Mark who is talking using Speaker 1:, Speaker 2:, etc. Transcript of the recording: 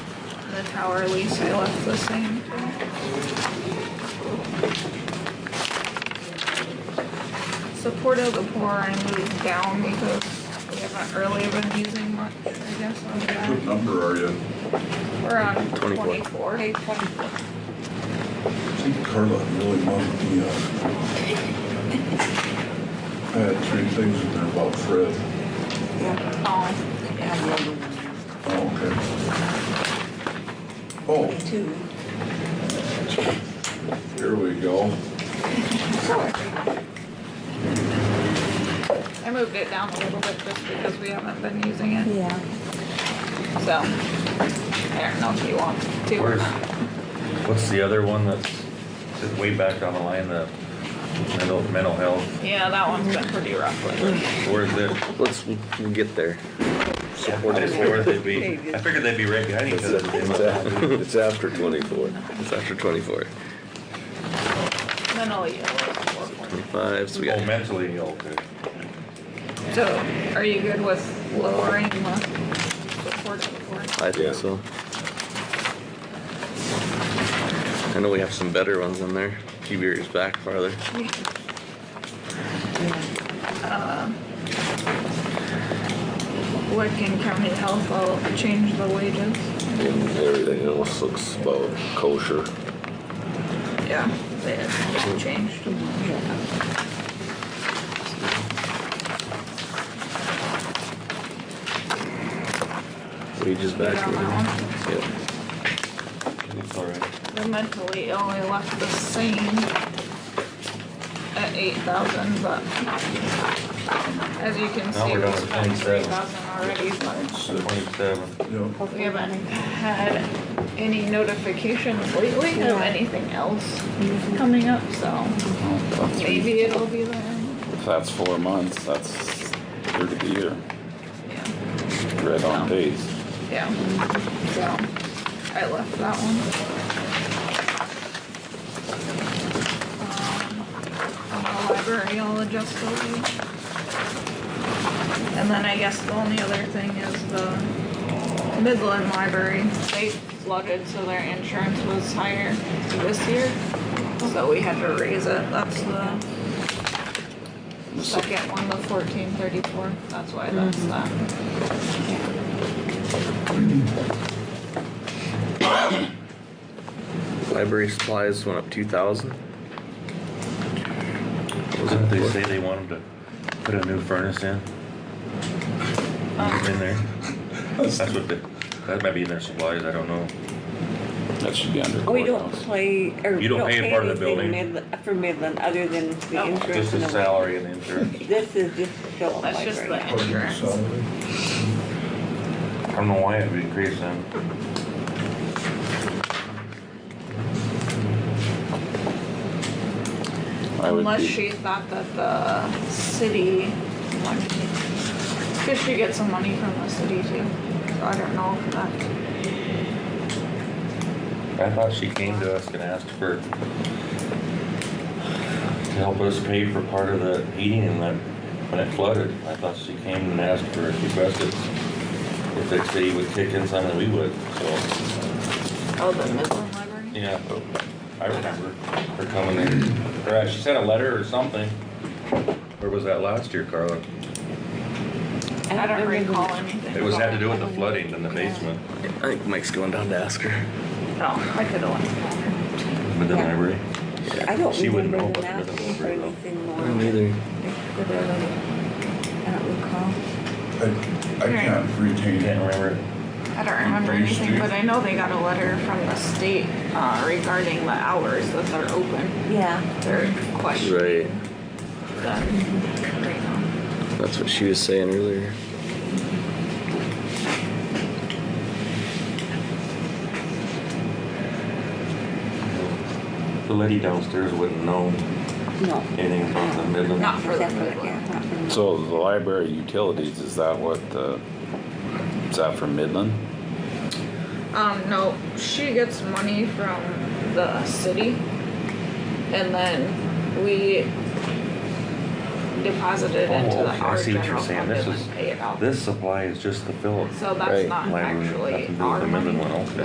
Speaker 1: hourly, so I left the same. Support of the poor I moved down because we haven't really been using much, I guess, on
Speaker 2: What
Speaker 1: that.
Speaker 2: number are you?
Speaker 1: We're on
Speaker 3: 24.
Speaker 1: twenty-four.
Speaker 4: Page twenty-four.
Speaker 2: I think Carla really mugged me up. I had three things in there about Fred.
Speaker 4: Yeah.
Speaker 1: Oh,
Speaker 4: And the other one,
Speaker 2: Oh, okay. Oh,
Speaker 4: Twenty-two.
Speaker 2: here we go.
Speaker 1: I moved it down a little bit just because we haven't been using it,
Speaker 4: Yeah.
Speaker 1: so. I don't know if you want to. or
Speaker 5: Where's,
Speaker 1: not.
Speaker 5: what's the other one that's that's way back down the line, the mental, mental health?
Speaker 1: Yeah, that one's been pretty rough lately.
Speaker 5: Where is it?
Speaker 3: Let's get there.
Speaker 5: I just figured they'd be, I figured they'd be right behind each
Speaker 3: It's
Speaker 5: other.
Speaker 3: a- it's a- it's after twenty-four. It's after twenty-four.
Speaker 1: Mentally ill is four point
Speaker 3: Twenty-five, so we
Speaker 5: Oh,
Speaker 3: got,
Speaker 5: mentally ill, too.
Speaker 1: So, are you good with lowering the support of the board?
Speaker 3: I think so. I know we have some better ones in there, a few years back farther.
Speaker 1: Lincoln County Health, I'll change the wages.
Speaker 6: And everything else looks about kosher.
Speaker 1: Yeah, they have changed.
Speaker 3: Wages back.
Speaker 1: Yeah, that
Speaker 3: Yep.
Speaker 5: It's all right.
Speaker 1: The mentally ill, I left the same at eight thousand, but as you can
Speaker 5: Now
Speaker 1: see,
Speaker 5: we're
Speaker 1: we
Speaker 5: down to
Speaker 1: spent
Speaker 5: 27.
Speaker 1: three thousand already, but
Speaker 5: Twenty-seven.
Speaker 2: Yeah,
Speaker 1: we haven't had any notifications lately of anything else coming up, so maybe it'll be there.
Speaker 6: If that's four months, that's third of the year,
Speaker 1: Yeah.
Speaker 6: right on pace.
Speaker 1: Yeah, so I left that one. Um, The library, I'll adjust those. And then I guess the only other thing is the Midland Library, they flooded, so their insurance was higher this year. So we had to raise it, that's the second one, the fourteen thirty-four, that's why that's that.
Speaker 3: Library supplies went up two thousand.
Speaker 5: Wasn't they say they wanted to put a new furnace in? In there? That's what they, that might be in their supplies, I don't know.
Speaker 6: That should be under
Speaker 4: We don't
Speaker 6: courthouse.
Speaker 4: play, or we
Speaker 5: You don't
Speaker 4: don't
Speaker 5: pay
Speaker 4: pay
Speaker 5: part of the
Speaker 4: anything
Speaker 5: building.
Speaker 4: Midland- for Midland, other than the
Speaker 1: No.
Speaker 4: insurance.
Speaker 5: Just
Speaker 4: and
Speaker 5: the
Speaker 4: the-
Speaker 5: salary and insurance.
Speaker 4: This is just the Phillip
Speaker 1: That's just the
Speaker 4: Library.
Speaker 1: insurance.
Speaker 2: salary.
Speaker 5: I don't know why it would increase them.
Speaker 6: I would
Speaker 1: Unless
Speaker 6: be-
Speaker 1: she thought that the city, because she gets some money from the city too. So I don't know if that,
Speaker 5: I thought she came to us and asked for, to help us pay for part of the heating and that, when it flooded. I thought she came and asked for, requested if the city would kick in some and we would, so,
Speaker 1: oh, the Midland Library?
Speaker 5: yeah. I remember her coming in, or uh, she sent a letter or something. Where was that last year, Carla?
Speaker 1: I don't
Speaker 4: remember.
Speaker 1: recall anything.
Speaker 5: It was, had to do with the flooding in the basement
Speaker 3: I think Mike's going down to ask her.
Speaker 1: Oh, I could have left.
Speaker 5: with the library.
Speaker 4: I don't
Speaker 5: She wouldn't know,
Speaker 4: remember
Speaker 5: but
Speaker 4: them
Speaker 5: it doesn't
Speaker 4: asking for
Speaker 5: really know.
Speaker 4: anything more.
Speaker 3: I don't either.
Speaker 4: I don't recall.
Speaker 2: I, I can't retain it.
Speaker 5: Can't remember.
Speaker 1: I don't remember
Speaker 2: Page
Speaker 1: anything,
Speaker 2: two.
Speaker 1: but I know they got a letter from the state uh, regarding the hours that they're open.
Speaker 4: Yeah.
Speaker 1: They're questioning
Speaker 3: Right,
Speaker 1: them right now.
Speaker 3: that's what she was saying earlier.
Speaker 5: The lady downstairs wouldn't know
Speaker 4: No.
Speaker 5: anything about the Midland.
Speaker 1: Not for the
Speaker 4: Except
Speaker 1: Midland.
Speaker 4: yeah, not for the-
Speaker 6: So the library utilities, is that what, uh, is that for Midland?
Speaker 1: Um, no, she gets money from the city, and then we deposit it into
Speaker 5: Oh,
Speaker 1: the
Speaker 5: okay, I
Speaker 1: our
Speaker 5: see what you're
Speaker 1: general
Speaker 5: saying.
Speaker 1: fund
Speaker 5: This
Speaker 1: and
Speaker 5: is-
Speaker 1: then pay it out.
Speaker 5: This supply is just the Phillips.
Speaker 1: So that's
Speaker 3: Right.
Speaker 1: not
Speaker 5: library,
Speaker 1: actually
Speaker 5: nothing to do with
Speaker 1: our
Speaker 5: the
Speaker 1: money.
Speaker 5: Midland one, okay.